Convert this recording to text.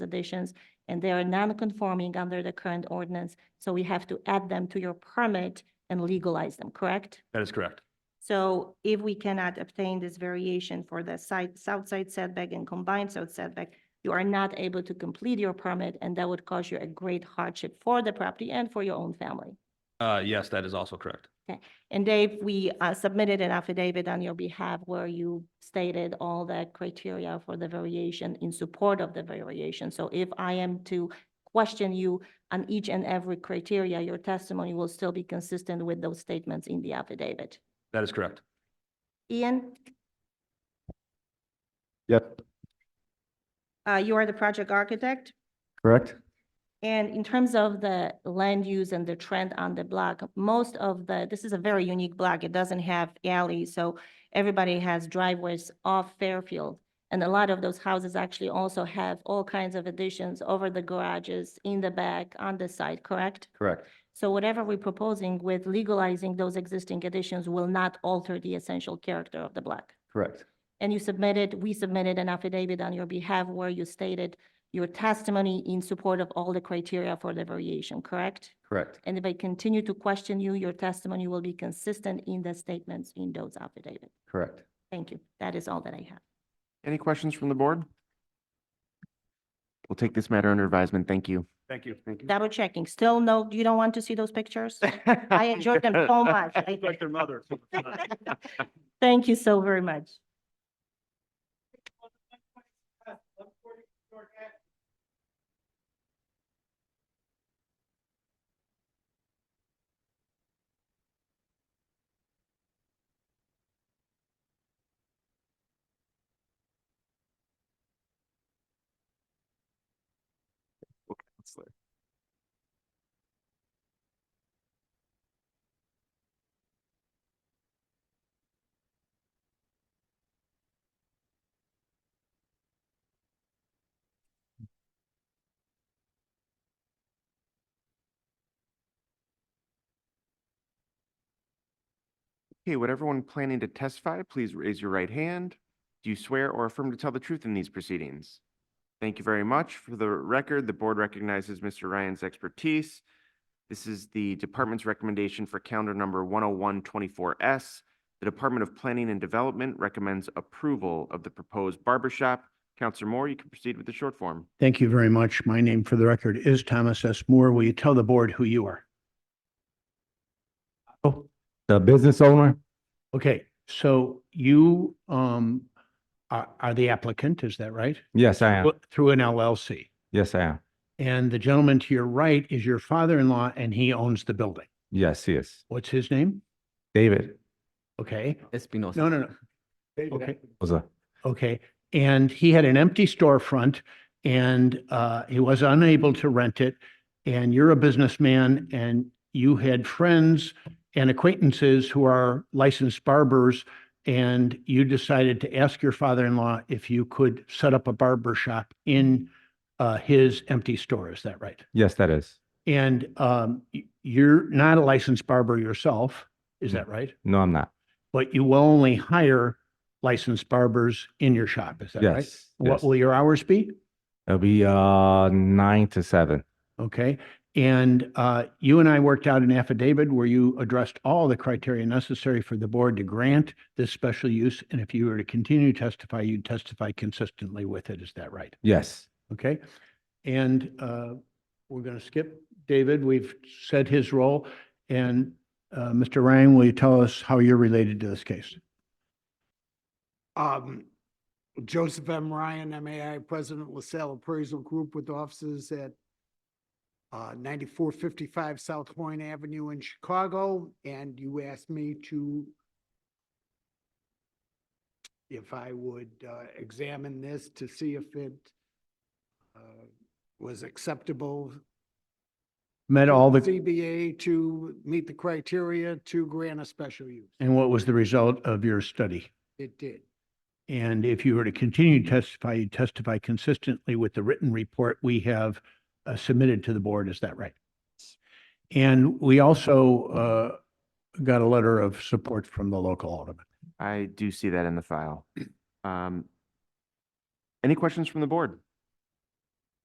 additions, and they are non-conforming under the current ordinance, so we have to add them to your permit and legalize them, correct? That is correct. So if we cannot obtain this variation for the side, south side setback and combined south setback, you are not able to complete your permit, and that would cause you a great hardship for the property and for your own family. Uh, yes, that is also correct. And Dave, we uh, submitted an affidavit on your behalf where you stated all the criteria for the variation in support of the variation. So if I am to question you on each and every criteria, your testimony will still be consistent with those statements in the affidavit. That is correct. Ian, Yep, uh, you are the project architect, correct? and in terms of the land use and the trend on the block, most of the, this is a very unique block. It doesn't have alleys, so everybody has driveways off Fairfield. And a lot of those houses actually also have all kinds of additions over the garages, in the back, on the side, correct? Correct. So whatever we're proposing with legalizing those existing additions will not alter the essential character of the block. Correct. And you submitted, we submitted an affidavit on your behalf where you stated your testimony in support of all the criteria for the variation, correct? Correct. And if I continue to question you, your testimony will be consistent in the statements in those affidavits. Correct. Thank you. That is all that I have. Any questions from the board? We'll take this matter under advisement. Thank you. Thank you. Thank Double checking. Still no, you don't want to see those pictures? I enjoyed them so much. I- their mother. Thank you so very much. Okay, would everyone planning to testify, please raise your right hand? Do you swear or affirm to tell the truth in these proceedings? Thank you very much. For the record, the board recognizes Mr. Ryan's expertise. This is the department's recommendation for calendar number 10124S. The Department of Planning and Development recommends approval of the proposed barber shop. Counselor Moore, you can proceed with the short form. Thank you very much. My name for the record is Thomas S. Moore. Will you tell the board who you are? Oh, The business owner? okay. So you um are are the applicant, is that right? Yes, I am. Well, Through an LLC. Yes, I am. And the gentleman to your right is your father-in-law and he owns the building. Yes, yes. What's his name? David. Okay. Espinosa. No, no, no. Okay. Was a, Okay, and he had an empty storefront and uh, he was unable to rent it. And you're a businessman and you had friends and acquaintances who are licensed barbers. And you decided to ask your father-in-law if you could set up a barber shop in uh, his empty store, is that right? yes, that is. And um, y- you're not a licensed barber yourself, is that right? No, I'm not. But you will only hire licensed barbers in your shop, is that right? Yes. yes. What will your hours be? It'll be, uh, nine to seven. Okay. And uh, you and I worked out an affidavit where you addressed all the criteria necessary for the board to grant this special use. And if you were to continue to testify, you'd testify consistently with it. Is that right? Yes. Okay. And uh, we're going to skip David. We've said his role. And uh, Mr. Ryan, will you tell us how you're related to this case? Um, Joseph M. Ryan, MAI President, LaSalle Appraisal Group with offices at uh, ninety-four fifty-five South Horn Avenue in Chicago, and you asked me to if I would uh, examine this to see if it uh, was acceptable Met to all the, ZBA to meet the criteria to grant a special use. and what was the result of your study? It did. And if you were to continue to testify, you testify consistently with the written report we have uh, submitted to the board, is that right? And we also uh, got a letter of support from the local alderman. I do see that in the file. Um, Any questions from the board?